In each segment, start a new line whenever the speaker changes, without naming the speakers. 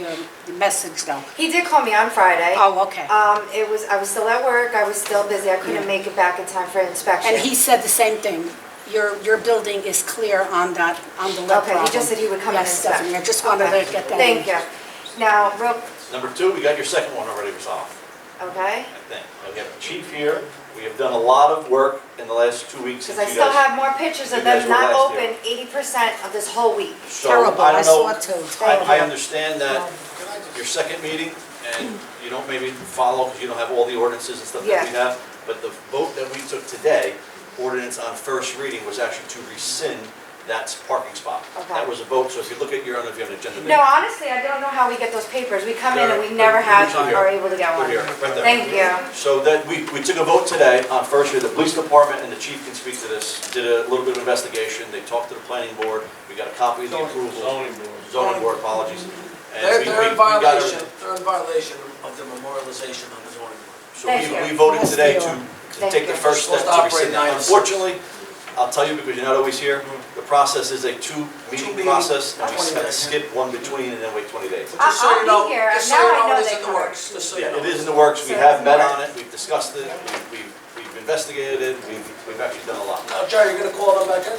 um, the message though?
He did call me on Friday.
Oh, okay.
Um, it was, I was still at work, I was still busy, I couldn't make it back in time for inspection.
And he said the same thing. Your, your building is clear on that, on the lead
Okay,
problem.
he just said he would come and
Yes,
inspect.
definitely. I just wanted
Okay.
to get that.
Thank
in.
you. Now, real,
Number two, we got your second one already resolved,
okay,
I think. We have chief here, we have done a lot of work in the last two weeks since
because
you
I still
guys.
have more pictures of
you guys
them
were
not
last here.
open eighty percent of this whole week.
So,
Terrible, I
don't
saw
know-
it too.
I, I
Terrible. Um,
understand that your second meeting, and you don't maybe follow, because you don't have all the ordinances and stuff that we
Yeah.
have, but the vote that we took today, ordinance on first reading, was actually to rescind that parking spot.
Okay.
That was a vote, so if you look at your, I don't know if you have an agenda.
No, honestly, I don't know how we get those papers. We come in and we
They're-
never
they're
have,
usually here.
are able to get
They're
one.
here, right there.
Thank you.
So that, we, we took a vote today on first year, the police department and the chief can speak to this, did a little bit of investigation, they talked to the planning board, we got a copy of the approval,
Zoning board.
zoning board, apologies. And
They're,
we-
they're
we- we
in
got a-
violation, they're in violation of the memorialization of the zoning board.
So we,
Thank you.
we voted
Yes,
today to, to
Thank
take the
you.
first step to
Supposed to
rescind
operate
that.
nine to six.
Unfortunately, I'll tell you because you're not always here, the process is a two-meeting
Two-meeting,
process, and we
twenty
have to
days.
skip one between and then wait 20 days.
I-
Just so
I'll
you
be
know-
here.
just so
Now
you
I
know
know
it's
they
in the
come.
works, just so you
Yeah,
know.
it is in the works, we
So
have
it's
met
more-
on it, we've discussed it, we- we've, we've investigated it, we've, we've actually done a lot.
Now, Uh, Jerry, you're gonna call them back in?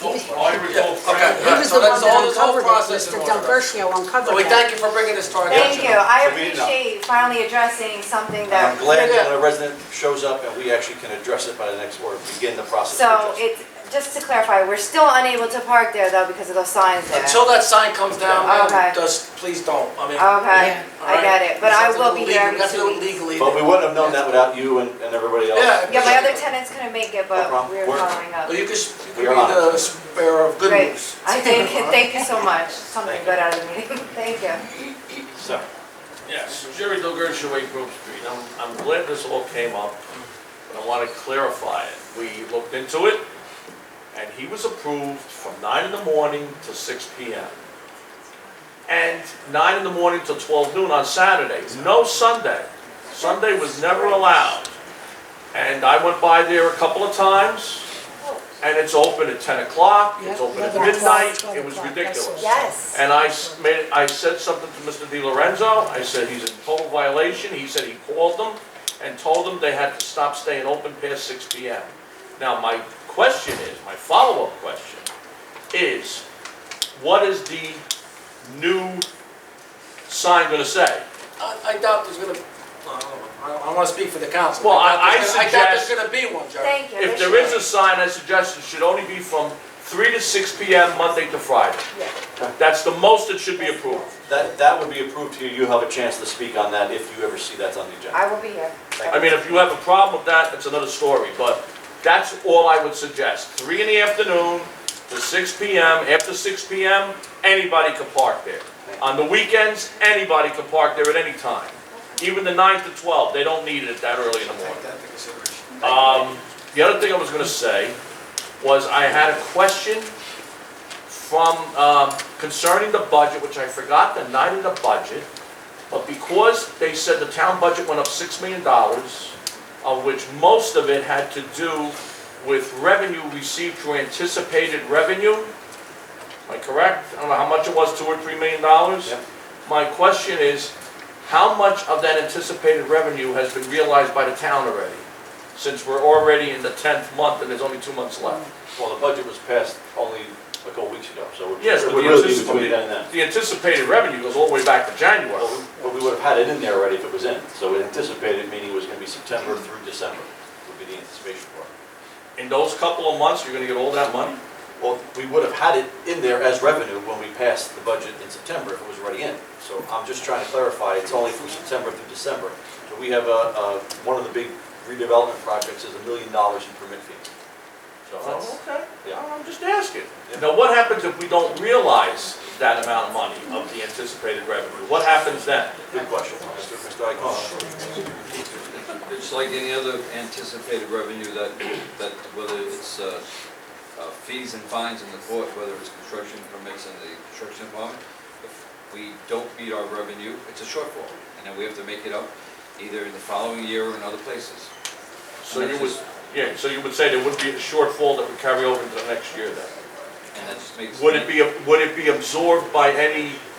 I recall
Yeah,
Frank,
okay.
He was the
So
one
that's all-
that
this whole
uncovered it,
process
Mr.
in order.
Delgertia
So
uncovered
we
that.
thank you for bringing this to our
Thank
attention.
you. I
So we didn't know.
appreciate you finally addressing something
And I'm
that,
glad
Yeah.
that when a resident shows up and we actually can address it by the next, or begin the process. of
so
addressing
it's, just to clarify, we're still unable to park there though because of those signs there.
Until that sign comes down,
Okay.
man, just, please don't, I mean.
Okay,
Yeah.
I get it, but I will be there
We
in
have to do
two
it
weeks.
legally.
it. But we wouldn't have known that without you and, and everybody else.
Yeah.
Yeah, my other tenants couldn't make it,
No
but
problem.
we were
We're-
following up.
But you could, you
We
could
are
be
on it.
the bearer of good
Great,
news.
I thank you, thank you so much,
Thank
something
you.
good out of the meeting, thank you.
So,
yes, Jerry Delgertia, Way Grove Street. I'm, I'm glad this all came up, but I want to clarify it. We looked into it, and he was approved from nine in the morning to six P M. And nine in the morning till twelve noon on Saturday, no Sunday. Sunday was never allowed. And I went by there a couple of times, and it's open at ten o'clock, it's
Yeah,
open at
11 o'clock,
midnight,
12
it was
o'clock, I
ridiculous.
saw.
Yes.
And I s- made, I said something to Mr. Di Lorenzo, I said he's in total violation, he said he called them and told them they had to stop staying open past six P M. Now, my question is, my follow-up question is, what is the new sign gonna say?
I, I doubt there's gonna, I don't know, I don't- I wanna speak for the council.
Well,
doubt
I- I
there's gonna- I doubt
suggest-
there's gonna be one, Jerry.
Thank you.
If
They
there is a
should.
sign, I suggest it should only be from three to six P M, Monday to Friday.
Yeah.
That's the most that should be approved.
that, that would be approved here, you have a chance to speak on that if you ever see that's on the agenda.
I will be here.
I mean, if you have a problem with that, that's another story, but that's all I would suggest. Three in the afternoon to six PM, after six PM, anybody could park there. On the weekends, anybody could park there at any time. Even the nine to twelve, they don't need it that early in the morning.
Take that into consideration.
Um, the other thing I was gonna say was I had a question from, um, concerning the budget, which I forgot the night of the budget. But because they said the town budget went up six million dollars, of which most of it had to do with revenue received through anticipated revenue. Am I correct? I don't know how much it was, two or three million dollars?
Yep.
My question is, how much of that anticipated revenue has been realized by the town already? Since we're already in the tenth month and there's only two months left.
Well, the budget was passed only a couple of weeks ago, so it
Yes,
it
but
would
the
really be
anticipated-
between then and then.
The anticipated revenue goes all the way back to January.
Well, we- But we would have had it in there already if it was in, so it anticipated, meaning it was gonna be September through December, would be the anticipation for it.
In those couple of months, you're gonna get all that money?
Well, we would have had it in there as revenue when we passed the budget in September if it was already in. So I'm just trying to clarify, it's only from September through December. So we have a, a, one of the big redevelopment projects is a million dollars in permit fees. So that's,
Oh, okay,
yeah.
I'm just asking.
Yeah.
Now, what happens if we don't realize that amount of money of the anticipated revenue? What happens then?
good question, Mr. Mr. Iacona.
It's like any other anticipated revenue that, that whether it's uh, uh, fees and fines in the court, whether it's construction permits in the construction department, if we don't meet our revenue, it's a shortfall, and then we have to make it up either in the following year or in other places.
So you would, yeah, so you would say there would be a shortfall that would carry over into the next year then?
And that just makes.
Would it be, would it be absorbed by any uh,